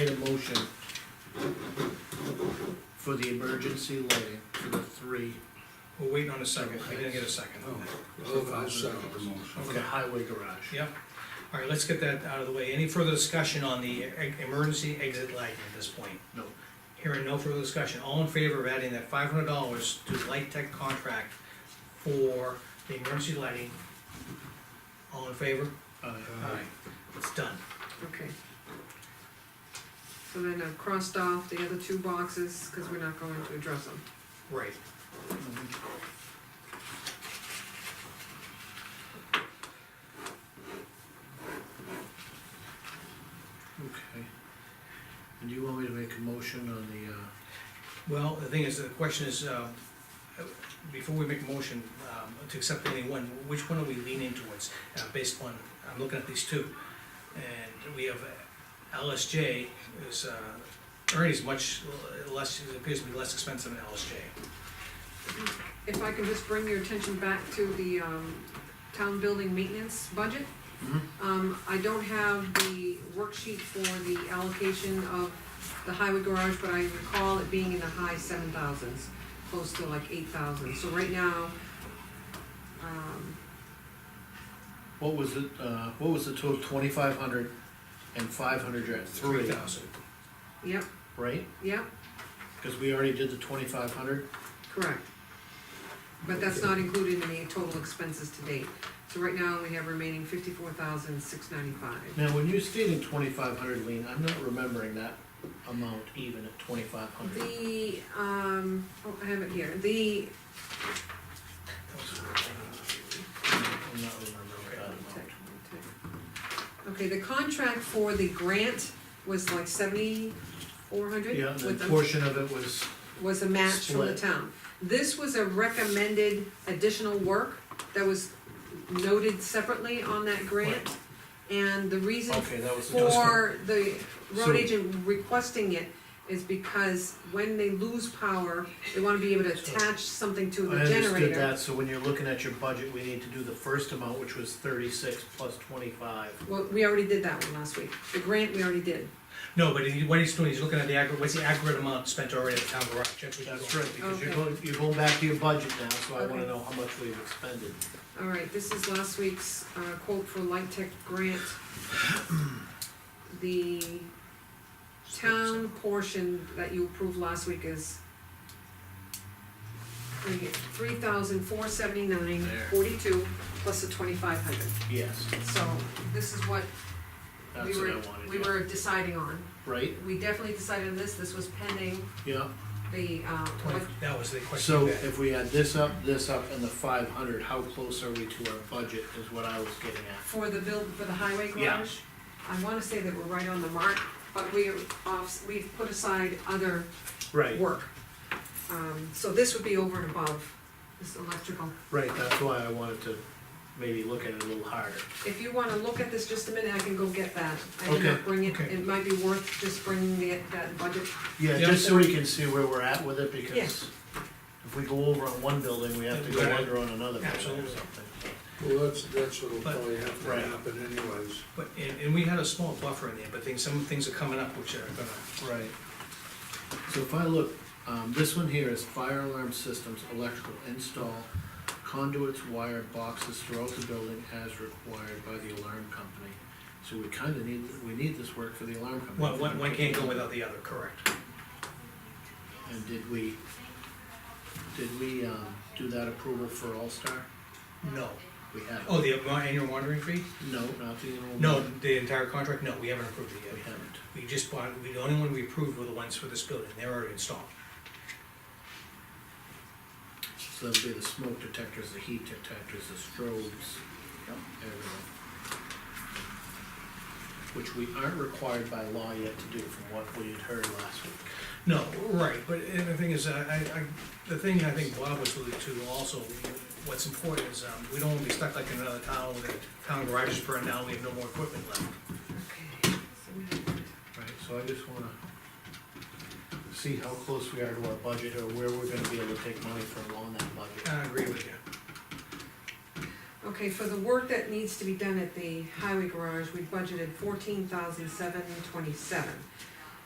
Need a motion for the emergency lighting for the three, We're waiting on a second, I didn't get a second. I'll second the motion. for the highway garage. Yep, all right, let's get that out of the way. Any further discussion on the e- emergency exit lighting at this point? No, Hearing no further discussion, all in favor of adding that five hundred dollars to the Light Tech contract for the emergency lighting? All in favor? uh, Aye. It's done. Okay. So then I've crossed off the other two boxes, cause we're not going to address them. Right. okay. And do you want me to make a motion on the, uh? Well, the thing is, the question is, uh, before we make a motion um, to accept any one, which one are we leaning towards? Uh, Based on, I'm looking at these two, and we have uh, LSJ is, uh, Ernie's much less, it appears to be less expensive than LSJ. If I can just bring your attention back to the, um, town building maintenance budget. Um, I don't have the worksheet for the allocation of the highway garage, but I recall it being in the high seven thousands, close to like eight thousand, so right now, um, What was it, uh, what was the total, twenty-five hundred and five hundred, you're at three, thousand. yep, right? yep, Cause we already did the twenty-five hundred, Correct. But that's not included in the total expenses to date. So right now, we have remaining fifty-four thousand, six ninety-five. now, when you stated twenty-five hundred, Lean, I'm not remembering that amount even at twenty-five hundred. The, um, oh, I have it here, the, I'm not remembering that amount. okay, the contract for the grant was like seventy-four hundred? Yeah, and a portion of it was, was a match from the Split. town. This was a recommended additional work that was noted separately on that grant. And the reason okay, that was. the for the So- road agent requesting it is because when they lose power, they wanna be able to attach something to I the understood generator. that, so when you're looking at your budget, we need to do the first amount, which was thirty-six plus twenty-five. Well, we already did that one last week, the grant we already did. No, but he- what he's doing, he's looking at the aggregate, what's the aggregate amount spent already at the town garage? That's what he's That's doing. right, because you're Okay. going, you're going back to your budget now, so I wanna Okay. know how much we've expended. All right, this is last week's uh, quote for Light Tech grant. The town portion that you approved last week is three thousand four seventy-nine There. forty-two plus the twenty-five hundred. Yes, So this is what we that's what I were, wanted, we yeah, were deciding on. right, We definitely decided on this, this was pending yeah, the, uh, Twenty- That was the question. so you had. if we add this up, this up, and the five hundred, how close are we to our budget, is what I was getting at. for the build, for the highway Yeah. garage. I wanna say that we're right on the mark, but we are off, we've put aside other Right, work. Um, so this would be over and above, this electrical. right, that's why I wanted to maybe look at it a little harder, If you wanna look at this just a minute, I can go get that. I did not Okay, bring it, okay. it might be worth just bringing the, that budget. yeah, Yeah. just so we can see where we're at with it, Yeah. because if we go over on one building, we have to go Right. under on another building or Absolutely. something. Well, that's, that's what'll But- probably have to Right. happen anyways. But, and, and we had a small buffer in there, but things, some things are coming up which are gonna, Right. So if I look, um, this one here is fire alarm systems, electrical install, conduits, wire, boxes throughout the building as required by the alarm company. So we kinda need, we need this work for the alarm company. one, one, one can't go without the other, correct? And did we, did we, um, do that approval for All Star? No. We haven't. Oh, the annual wandering fee? No, not the enrollment. No, the entire contract, no, we haven't approved it We yet. haven't. We just bought, we- the only one we approved were the ones for this building, they're already installed. So that'd be the smoke detectors, the heat detectors, the strobes. Yep. Everything. Which we aren't required by law yet to do from what we had heard last week. No, right, but uh, the thing is, uh, I, I, the thing I think Bob was alluding to also, what's important is, um, we don't wanna be stuck like in another town, where the town garage is burned down, we have no more equipment left. Okay. Right. So I just wanna see how close we are to our budget or where we're gonna be able to take money from on that budget. I agree with you. Okay, for the work that needs to be done at the highway garage, we budgeted fourteen thousand seven twenty-seven.